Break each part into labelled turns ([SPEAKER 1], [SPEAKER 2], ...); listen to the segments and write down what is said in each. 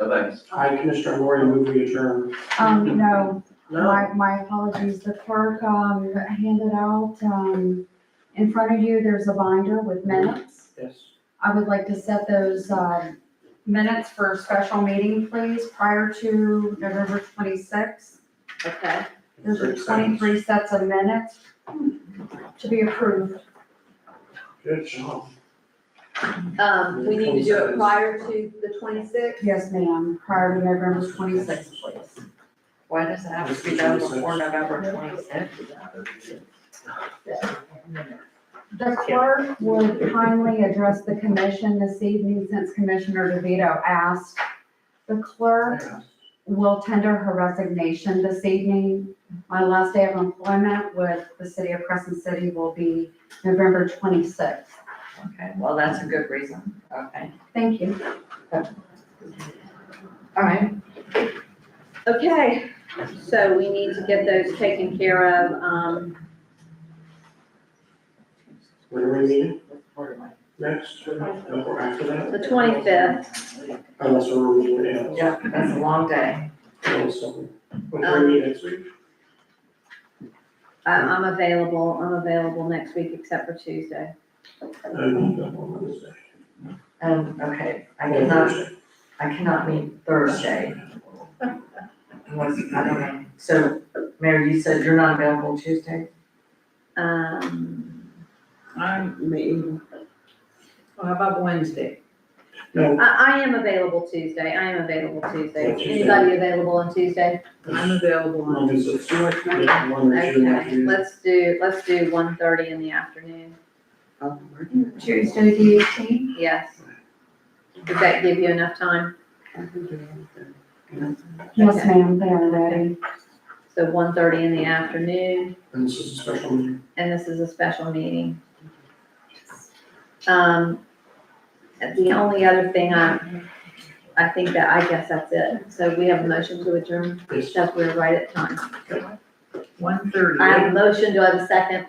[SPEAKER 1] No, thanks.
[SPEAKER 2] I, Commissioner Moore, move we adjourn.
[SPEAKER 3] Um, no,
[SPEAKER 2] No,
[SPEAKER 3] my, my apologies, the clerk, um, handed out, um, in front of you, there's a binder with minutes.
[SPEAKER 2] yes.
[SPEAKER 3] I would like to set those, um, minutes for a special meeting, please, prior to November twenty-sixth.
[SPEAKER 4] Okay,
[SPEAKER 3] Those are
[SPEAKER 2] Makes sense.
[SPEAKER 3] twenty-three sets of minutes to be approved.
[SPEAKER 2] Good job.
[SPEAKER 4] um, we need to do it prior to the twenty-sixth?
[SPEAKER 3] Yes, ma'am, prior to November twenty-sixth, please.
[SPEAKER 5] Why does it have to be done before November twenty-sixth?
[SPEAKER 3] The clerk would kindly address the commission this evening since Commissioner DeVito asked. The clerk will tender her resignation this evening. My last day of employment with the city of Crescent City will be November twenty-sixth.
[SPEAKER 5] Okay, well, that's a good reason, okay.
[SPEAKER 3] Thank you.
[SPEAKER 5] All right,
[SPEAKER 4] Okay, so we need to get those taken care of, um,
[SPEAKER 2] When are we meeting
[SPEAKER 5] where am I?
[SPEAKER 2] next? Or after that?
[SPEAKER 4] the twenty-fifth,
[SPEAKER 2] Unless we're meeting else.
[SPEAKER 5] Yeah, that's a long day.
[SPEAKER 2] Also, When are we meeting next week?
[SPEAKER 4] Um, I'm, I'm available, I'm available next week except for Tuesday.
[SPEAKER 2] Um, on Wednesday.
[SPEAKER 5] Um, okay, I
[SPEAKER 2] Or
[SPEAKER 5] cannot,
[SPEAKER 2] Thursday.
[SPEAKER 5] I cannot meet Thursday. Unless, I don't know, so, Mary, you said you're not available Tuesday?
[SPEAKER 4] Um,
[SPEAKER 6] I'm meeting. Well, how about Wednesday?
[SPEAKER 2] No,
[SPEAKER 4] I, I am available Tuesday, I am available Tuesday.
[SPEAKER 2] Yeah, Tuesday.
[SPEAKER 4] Anybody available on Tuesday?
[SPEAKER 6] I'm available on
[SPEAKER 2] Mine is a-
[SPEAKER 6] Tuesday.
[SPEAKER 2] yeah, one or two
[SPEAKER 4] Okay,
[SPEAKER 2] afternoon.
[SPEAKER 4] let's do, let's do one thirty in the afternoon,
[SPEAKER 3] Tuesday, the eighteenth?
[SPEAKER 4] yes. Does that give you enough time?
[SPEAKER 3] Yes, ma'am, they are ready.
[SPEAKER 4] So one thirty in the afternoon.
[SPEAKER 2] And this is a special meeting.
[SPEAKER 4] and this is a special meeting. Um, and the only other thing I, I think that, I guess that's it. So we have a motion to adjourn,
[SPEAKER 2] Yes.
[SPEAKER 4] because we're right at time.
[SPEAKER 6] One
[SPEAKER 4] I have a
[SPEAKER 6] thirty,
[SPEAKER 4] motion, do I have a second?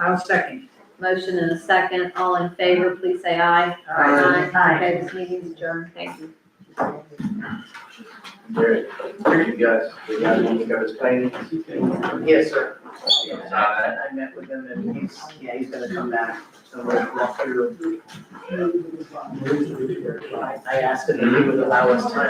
[SPEAKER 6] I'll second.
[SPEAKER 4] Motion and a second, all in favor, please say aye.
[SPEAKER 6] Aye.
[SPEAKER 4] Okay, this meeting is adjourned, thank you.
[SPEAKER 1] There, there you guys, we got to look up his paintings.
[SPEAKER 6] Yes, sir.
[SPEAKER 1] Alright.
[SPEAKER 6] I met with him and he's, yeah, he's gonna come back, so we'll walk through. I I asked him if he would allow us time